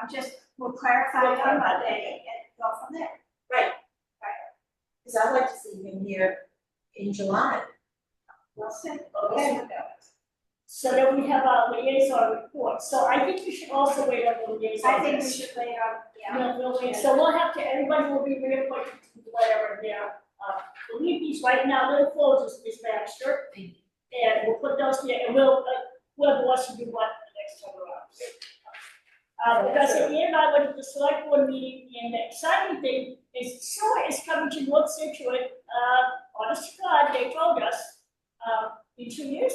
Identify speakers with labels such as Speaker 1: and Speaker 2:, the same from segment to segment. Speaker 1: I'm just, we'll clarify it on Monday and go from there.
Speaker 2: Cause I'd like to see him here in July.
Speaker 1: We'll see.
Speaker 3: Okay. So then we have our liaison report, so I think we should also wait on the liaison.
Speaker 1: I think we should lay out, yeah,
Speaker 3: No, we'll wait, so we'll have to, everybody will be reappointed to whatever their, uh, believe these right now, they'll close this, this master. And we'll put those there, and we'll, uh, we'll watch you do what the next time around. Uh, because at the end, I went to the select board meeting, and the exciting thing is Sure is coming to North Situate, uh, honest to God, they told us, uh, in two years,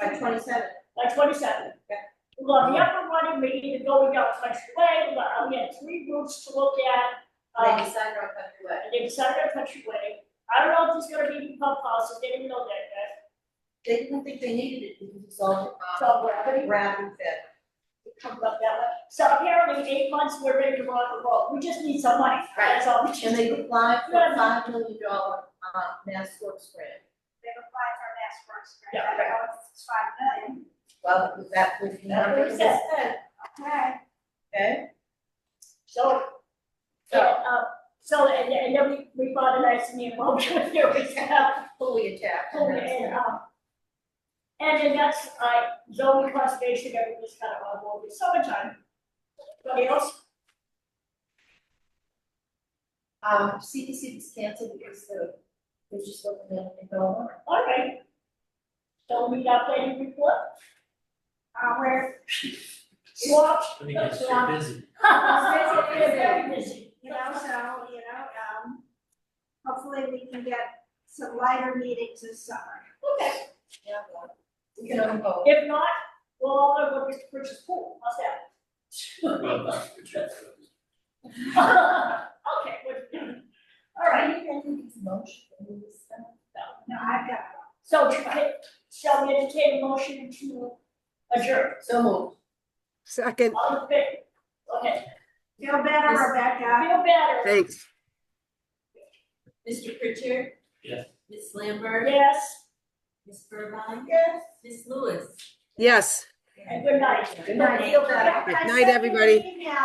Speaker 2: By twenty-seven.
Speaker 3: like twenty-seven.
Speaker 2: Yeah.
Speaker 3: We'll have the upper one, and we either going down Country Way, we'll have, we have three routes to look at.
Speaker 2: They
Speaker 3: Um,
Speaker 2: decided on country way.
Speaker 3: and they decided on Country Way, I don't know if there's gonna be any pump houses, they didn't know that uh, yet,
Speaker 2: They didn't think they needed it because it's all um,
Speaker 3: so we're pretty,
Speaker 2: ground and fit.
Speaker 3: it comes up that way. So apparently, eight months, we're ready to rock and roll, we just need some money, that's all we just
Speaker 2: And they
Speaker 3: need.
Speaker 2: applied for
Speaker 3: Yeah.
Speaker 2: a five million dollar um mass works grant.
Speaker 1: they've applied for a mass works grant,
Speaker 3: Yeah,
Speaker 1: I don't know if it's five million.
Speaker 2: Well, was that was the
Speaker 3: That's what
Speaker 2: number
Speaker 3: it
Speaker 2: that
Speaker 3: says.
Speaker 2: was spent,
Speaker 1: Okay,
Speaker 2: okay?
Speaker 3: So,
Speaker 2: So-
Speaker 3: and, uh, so, and, and then we, we bought a nice new motor, there we go.
Speaker 2: Fully attacked. and that's-
Speaker 3: And, um, and then that's, I, zone conservation, everything's kind of on board with summertime. Anybody else?
Speaker 2: Um, CDC was canceled because the, they just looking at it going on.
Speaker 3: All right. So we got planning report,
Speaker 1: uh, we're,
Speaker 3: swap.
Speaker 4: Let me get so busy.
Speaker 3: It's very busy.
Speaker 1: you know, so, you know, um, hopefully we can get some lighter meetings this summer.
Speaker 3: Okay,
Speaker 2: Yeah, well, we can only vote.
Speaker 3: if not, we'll all go over to Rich's pool, how's
Speaker 4: Well,
Speaker 3: that?
Speaker 4: that's good, that's good.
Speaker 3: Okay, good. all right.
Speaker 2: Do you think it's motion, we will spend?
Speaker 1: No, I've got
Speaker 3: So try- shall we entertain a motion to adjourn?
Speaker 2: So moved.
Speaker 5: Second,
Speaker 3: All in favor? Okay,
Speaker 1: Feel better,
Speaker 2: Yes.
Speaker 1: Rebecca.
Speaker 3: feel better,
Speaker 5: thanks.
Speaker 2: Mr. Pritchard?
Speaker 4: Yes.
Speaker 2: Ms. Lambert?
Speaker 3: yes?
Speaker 2: Ms. Burbine? Yes. Ms. Lewis?
Speaker 5: Yes.
Speaker 3: And good night.
Speaker 2: Good night.
Speaker 3: Feel better.
Speaker 5: Good
Speaker 1: I
Speaker 5: night,
Speaker 1: sent you an
Speaker 5: everybody.
Speaker 1: email